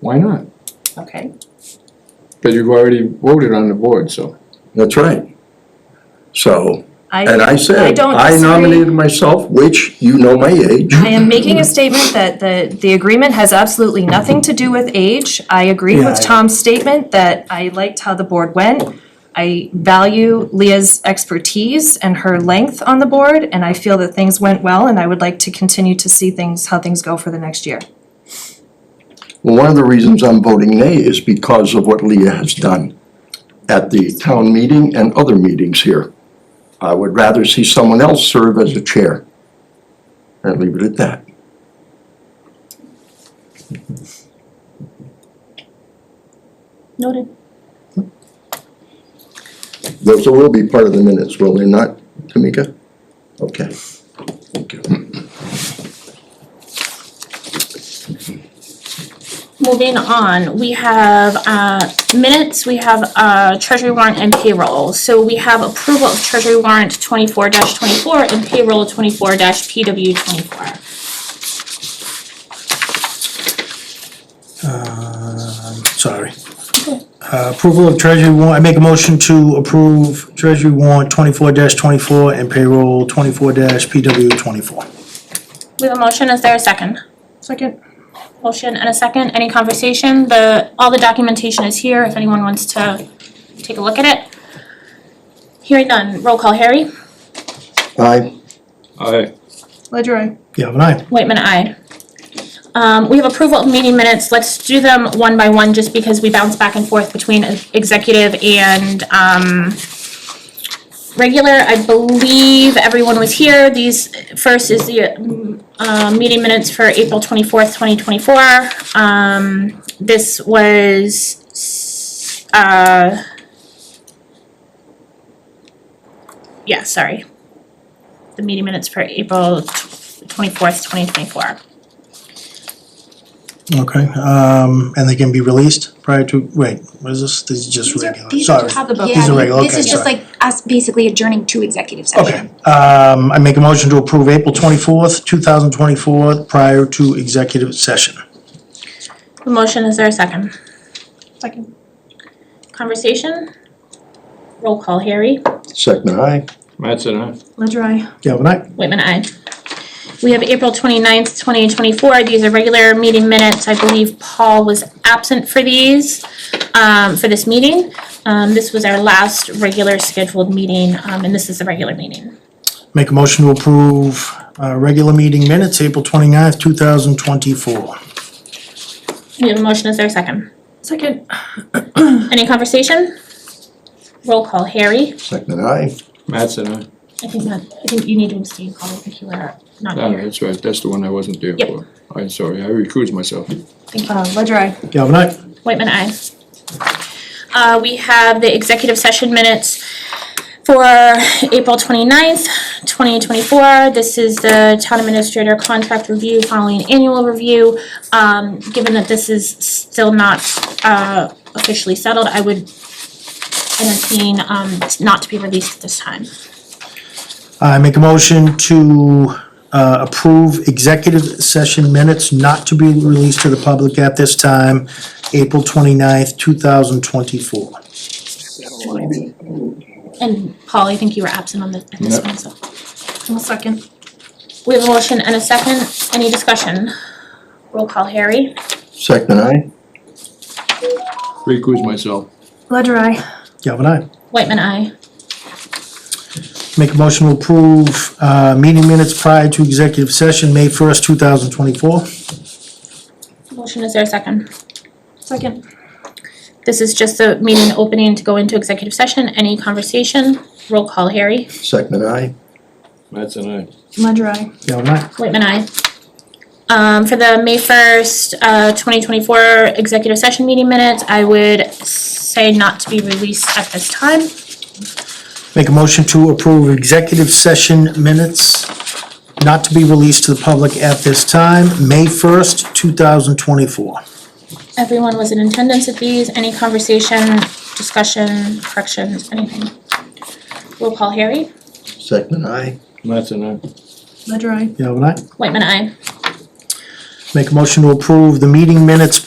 Why not? Okay, Because you've already voted on the board, so. That's right. So, and I, I said, don't I disagree. nominated myself, which you know my age. I am making a statement that the, the agreement has absolutely nothing to do with age. I agree Yeah, with I- Tom's statement that I liked how the board went. I value Leah's expertise and her length on the board, and I feel that things went well, and I would like to continue to see things, how things go for the next year. Well, One of the reasons I'm voting nay is because of what Leah has done at the town meeting and other meetings here. I would rather see someone else serve as a chair. And leave it at that. Noted. Those will be part of the minutes, will they not, Tamika? Okay. Thank you. Moving on, we have uh minutes, we have uh treasury warrant and payroll. So we have approval of treasury warrant twenty-four twenty-four and payroll twenty-four PW twenty-four. Um, sorry. Uh, Approval of treasury warrant, I make a motion to approve treasury warrant twenty-four twenty-four and payroll twenty-four PW twenty-four. We have a motion, is there a second? Second. Motion and a second, any conversation? The, all the documentation is here if anyone wants to take a look at it. Hearing none, roll call Harry, Aye, Aye. Ledger I. Galvin I. Waitman, aye. Um, we have approval of meeting minutes, let's do them one by one just because we bounce back and forth between executive and, um, regular, I believe everyone was here, these, first is the, um, uh, meeting minutes for April twenty-fourth, twenty twenty-four. Um, this was, s- uh, yeah, sorry. The meeting minutes for April twenty-fourth, twenty twenty-four. Okay, um, and they can be released prior to, wait, what is this? This is just These are- regular, these sorry. Have the book. Yeah, These are thi- regular, This okay, is just sorry. like us basically adjourning to executive Okay, session. um, I make a motion to approve April twenty-fourth, two thousand twenty-four, prior to executive session. The motion, is there a second? Second. Conversation? Roll call, Harry. second aye. Mattson, aye. Ledger I. Galvin I. Whitman, aye. We have April twenty-ninth, twenty twenty-four. These are regular meeting minutes. I believe Paul was absent for these, um, for this meeting. Um, this was our last regular scheduled meeting, um, and this is the regular meeting. Make a motion to approve, uh, regular meeting minutes, April twenty-ninth, two thousand twenty-four. We have a motion, is there a second? Second. Any conversation? Roll call, Harry. Second aye. Mattson, aye. I think that, I think you need to abstain, Paul, I think you are not Ah, here. that's right, that's the one I wasn't there Yep. for. I'm sorry, I recused myself. Uh, Oh, ledger I. Galvin I. Whitman, aye. Uh, we have the executive session minutes for April 29th, twenty-four. This is the town administrator contract review following annual review. Um, given that this is still not, uh, officially settled, I would entertain, um, not to be released at this time. I make a motion to uh, approve executive session minutes not to be released to the public at this time, April 29th, 2024. And Paul, I think you were absent on the, at this Yep. one, so. I'll second. We have a motion and a second. Any discussion? Roll call, Harry. Second aye. Recused myself. Ledger I. Galvin, I. Whitman, aye. Make a motion to approve uh, meeting minutes prior to executive session, May 1st, 2024. Motion, is there a second? Second. This is just the meeting opening to go into executive session. Any conversation? Roll call, Harry. Second aye. Mattson, aye. Ledger I. Galvin, I. Whitman, aye. Um, for the May first, uh, twenty twenty-four executive session meeting minutes, I would say not to be released at this time. Make a motion to approve executive session minutes not to be released to the public at this time, May 1st, 2024. Everyone was in attendance at these. Any conversation, discussion, corrections, anything? Roll call, Harry. Second aye. Mattson, aye. Ledger I. Galvin, I. Whitman, aye. Make a motion to approve the meeting minutes